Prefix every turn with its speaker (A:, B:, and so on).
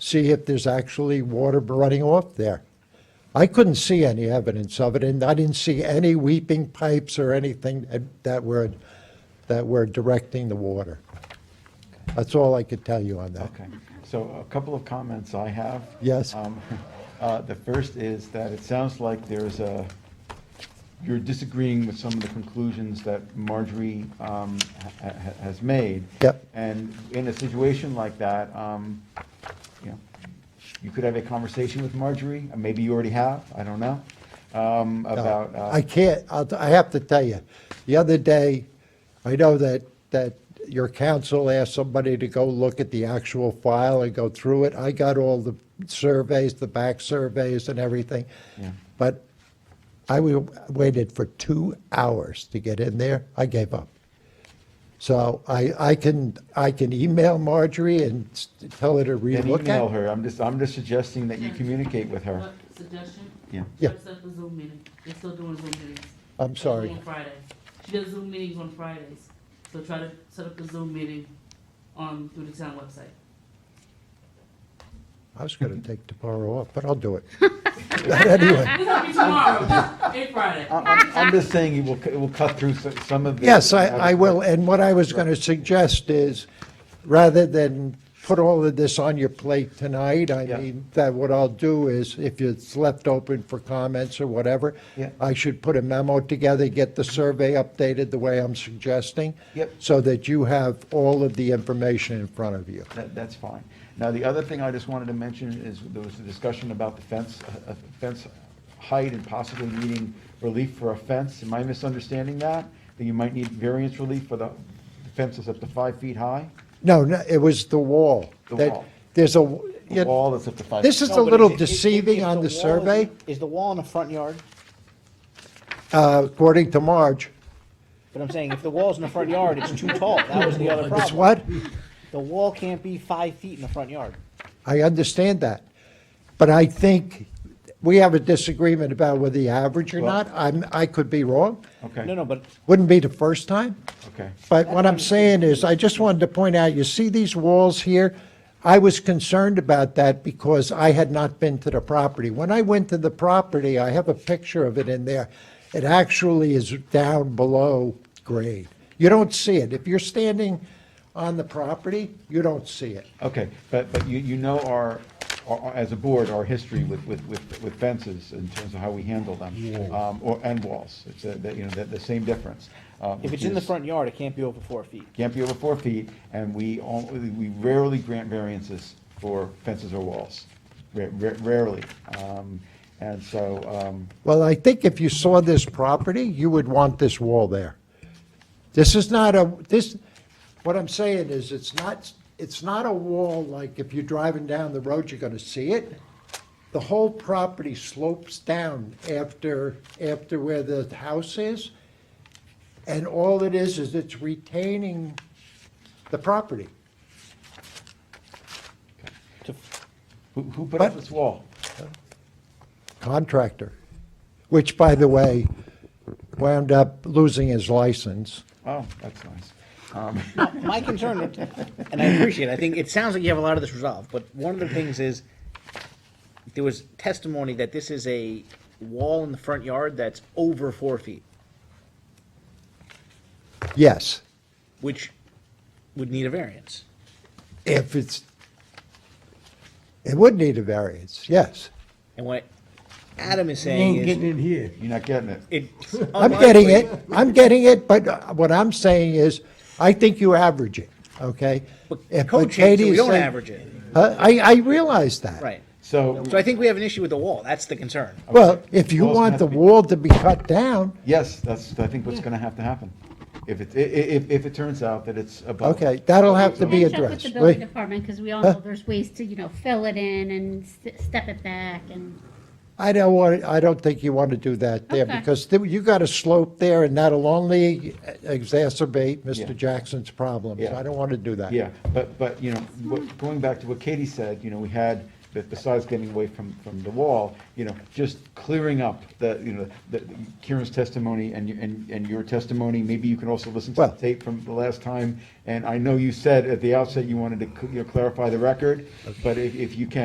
A: see if there's actually water running off there. I couldn't see any evidence of it, and I didn't see any weeping pipes or anything that- that were, that were directing the water. That's all I could tell you on that.
B: Okay, so a couple of comments I have.
A: Yes.
B: Um, uh, The first is that it sounds like there's a, you're disagreeing with some of the conclusions that Marjorie um, ha- ha- has made.
A: Yep.
B: And in a situation like that, um, you know, you could have a conversation with Marjorie, and maybe you already have, I don't know, um, about. uh,
A: I can't, I'll- I have to tell you, the other day, I know that, that your council asked somebody to go look at the actual file and go through it. I got all the surveys, the back surveys and everything.
B: Yeah.
A: But I wa- waited for two hours to get in there. I gave up. So I, I can, I can email Marjorie and s- tell her to
B: Then
A: relook
B: email
A: at.
B: her, I'm just, I'm just suggesting that you communicate with her.
C: What suggestion?
B: Yeah.
A: Yeah.
C: Dress up the Zoom meeting. They're still doing Zoom meetings.
A: I'm
C: They're doing
A: sorry.
C: On Friday. She does Zoom meetings on Fridays. So try to set up the Zoom meeting on, through the town website.
A: I was going to take tomorrow off, but I'll do it. Anyway.
C: It's gonna be tomorrow, eight Friday.
B: I- I'm, I'm just saying it will, it will cut through so- some of the.
A: Yes, I, I will, and what I was going to suggest is, rather than put all of this on your plate tonight, I
B: Yeah.
A: mean, that what I'll do is, if it's left open for comments or whatever,
B: Yeah.
A: I should put a memo together, get the survey updated the way I'm suggesting.
B: Yep.
A: So that you have all of the information in front of you.
B: That, that's fine. Now, the other thing I just wanted to mention is there was a discussion about the fence, uh, uh, fence height and possibly needing relief for a fence. Am I misunderstanding that? That you might need variance relief for the the fence that's up to five feet high?
A: No, no, it was the wall.
B: The
A: That-
B: wall.
A: There's a,
B: The wall that's up to five?
A: this is
B: feet.
A: a
D: No, but
A: little
D: is it- is- is-
A: deceiving
D: is
A: on the
D: wall in the-
A: survey,
D: Is the wall in the front yard?
A: uh, according to Marge.
D: But I'm saying, if the wall's in the front yard, it's too tall. That was the other problem.
A: It's what?
D: The wall can't be five feet in the front yard.
A: I understand that. But I think we have a disagreement about whether the average or
B: Well-
A: not. I'm, I could be wrong.
B: Okay.
D: No, no, but
A: Wouldn't be the first time.
B: Okay.
A: But what I'm saying is, I just wanted to point out, you see these walls here? I was concerned about that because I had not been to the property. When I went to the property, I have a picture of it in there. It actually is down below grade. You don't see it. If you're standing on the property, you don't see it.
B: Okay, but, but you, you know our, our- as a board, our history with, with, with with fences in terms of how we handle them. Um, Or, and walls, it's, a- that, you know, the, the same difference. uh,
D: if
B: which
D: it's in the
B: is-
D: front yard, it can't be over four feet.
B: Can't be over four feet, and we, on- we rarely grant variances for fences or walls, Ra- ra- rarely. Um, And so, um,
A: Well, I think if you saw this property, you would want this wall there. This is not a, this, what I'm saying is, it's not, it's not a wall like if you're driving down the road, you're gonna see it. The whole property slopes down after, after where the house is. And all it is, is it's retaining the property.
D: To-
B: who, who put up
A: But-
B: this wall?
A: Contractor, which by the way, wound up losing his license.
B: Oh, that's nice.
D: My concern, and I appreciate, it, I think, it sounds like you have a lot of this resolved, but one of the things is, there was testimony that this is a wall in the front yard that's over four feet,
A: Yes.
D: which would need a variance.
A: If it's, it would need a variance, yes.
D: And what Adam is
E: You
D: saying
E: ain't
D: is,
E: getting in here.
B: You're not getting it.
D: it's
A: I'm getting it, I'm getting it, but uh, what I'm saying is, I think you average it, okay? If-
D: But code changes,
A: Katie's
D: we don't
A: saying-
D: average it,
A: Huh? I, I realize that.
D: right?
B: So,
D: So I think we have an issue with the wall, that's the concern.
A: Well, if you
B: Walls
A: want
B: have
A: the
B: to be-
A: wall to be cut down,
B: yes, that's, I think what's gonna have to happen. If it, i- i- if, if it turns out that it's
D: Oh.
B: above.
A: okay, that'll have to be
F: Catch up with
A: addressed.
F: the building
A: Wait,
F: department, because we all know there's ways to, you know, fill it in and st- step it back and.
A: I don't want, I don't think you want to do that there,
F: Okay.
A: because there- you got a slope there, and that'll only exacerbate
B: Yeah.
A: Mr. Jackson's problems.
B: Yeah.
A: I don't want to do that.
B: Yeah, but, but, you know, what- going back to what Katie said, you know, we had, that besides getting away from, from the wall, you know, just clearing up the, you know, the Kieran's testimony and, you- and, and your testimony, maybe you can also listen to
A: Well-
B: the tape from the last time. And I know you said at the outset you wanted to, cl- you know, clarify the record, but if, if you can,